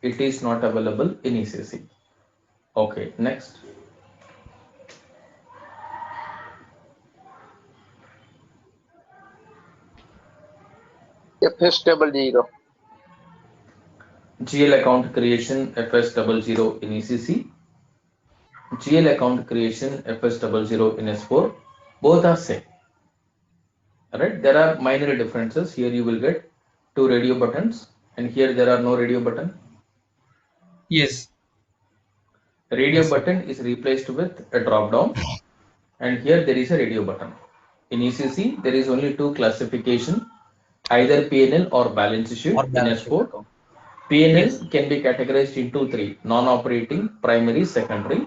it is not available in ECC. Okay, next. FS double zero. GL account creation FS double zero in E ECC. GL account creation FS double zero in S4. Both are same. Alright, there are minor differences. Here you will get two radio buttons and here there are no radio button. Yes. Radio button is replaced with a drop down and here there is a radio button. In ECC, there is only two classification, either PNL or balance sheet Or in balance sheet S4. account. PNL Yes. can be categorized into three, non-operating, primary, secondary.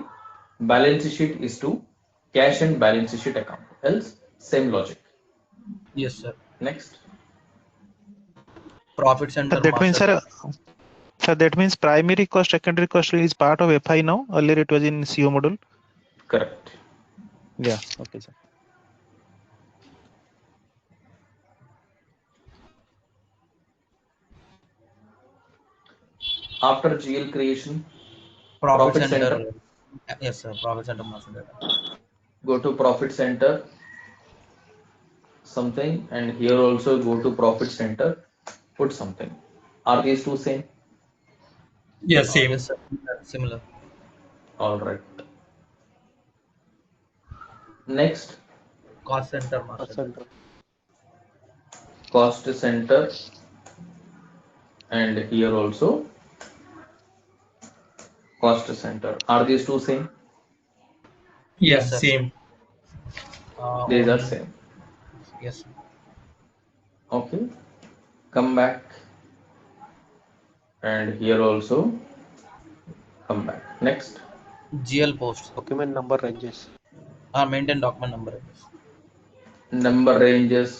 Balance sheet is two, cash and balance sheet account. Else, same logic. Yes, sir. Next. Profits and Sir, that means, sir, sir, that means primary cost, secondary cost is part of FI now. Earlier it was in CO module. Correct. Yeah. Okay, sir. After GL creation, profit profit center. Yes, sir. Profit center master data. go to profit center something and here also go to profit center put something are these two same Yes, same. Yes, sir. Similar. all right next Cost center master. data. cost center and here also cost center are these two same Yes, Yes, sir. same. Uh, these are same Yes. okay come back and here also come back next GL post. Document number ranges. Uh, maintain document number. number ranges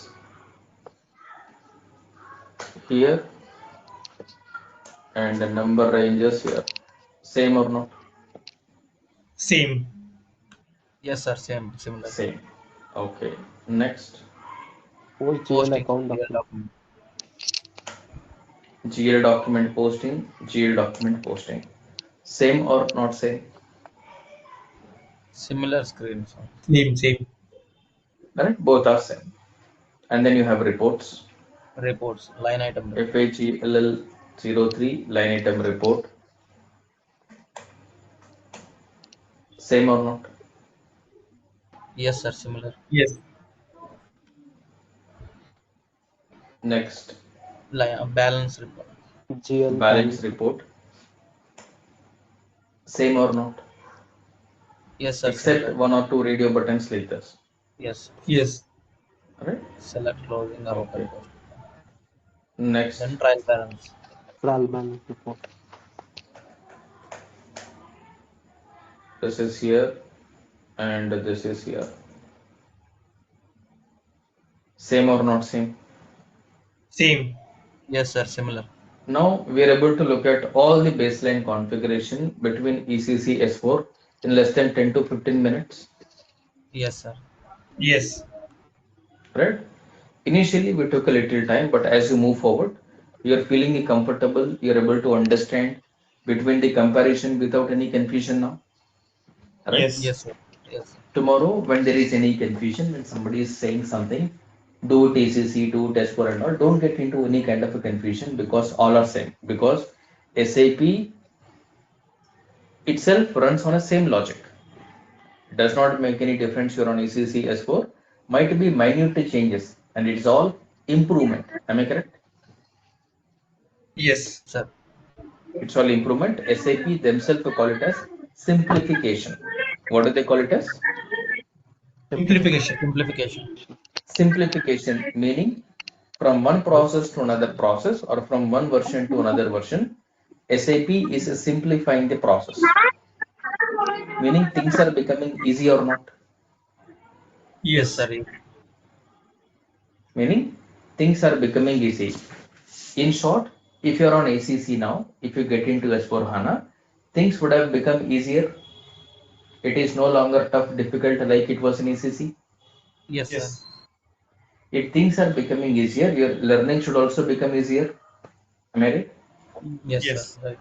here and the number ranges here same or not Same. Yes, sir. Same. Similar. same okay next Post Posting GL account GL document. document. gl document posting gl document posting same or not same Similar screen. sir. Same, same. correct both are same and then you have reports E Reports. Line item. report. FHELL 03 line item report same or not Yes, sir. Similar. Yes. next Line, uh, balance report. GL balance report same or not Yes, sir. except similar. one or two radio buttons like this Yes. Yes. right Select closing or open Okay. post. next Then trial balance. trial balance report. this is here and this is here same or not same Same. Yes, sir. Similar. now we are able to look at all the baseline configuration between E ecc s4 in less than 10 to 15 minutes Yes, sir. Yes. right initially we took a little time but as you move forward you're feeling comfortable you're able to understand between the comparison without any confusion now right Yes. Yes, sir. Yes. tomorrow when there is any confusion when somebody is saying something do tcc do test for and all don't get into any kind of a confusion because all are same because sap itself runs on a same logic does not make any difference you're on E ecc s4 might be minute changes and it's all improvement am i correct Yes. Sir. it's all improvement sap themselves call it as simplification what do they call it as Simplification. Simplification. simplification meaning from one process to another process or from one version to another version sap is simplifying the process meaning things are becoming easy or not Yes, Yes. sir. meaning things are becoming easy in short if you are on acc now if you get into s4 hana things would have become easier it is no longer tough difficult like it was in acc Yes, sir. Yes. if things are becoming easier your learning should also become easier am i right Yes, Yes. sir. Right.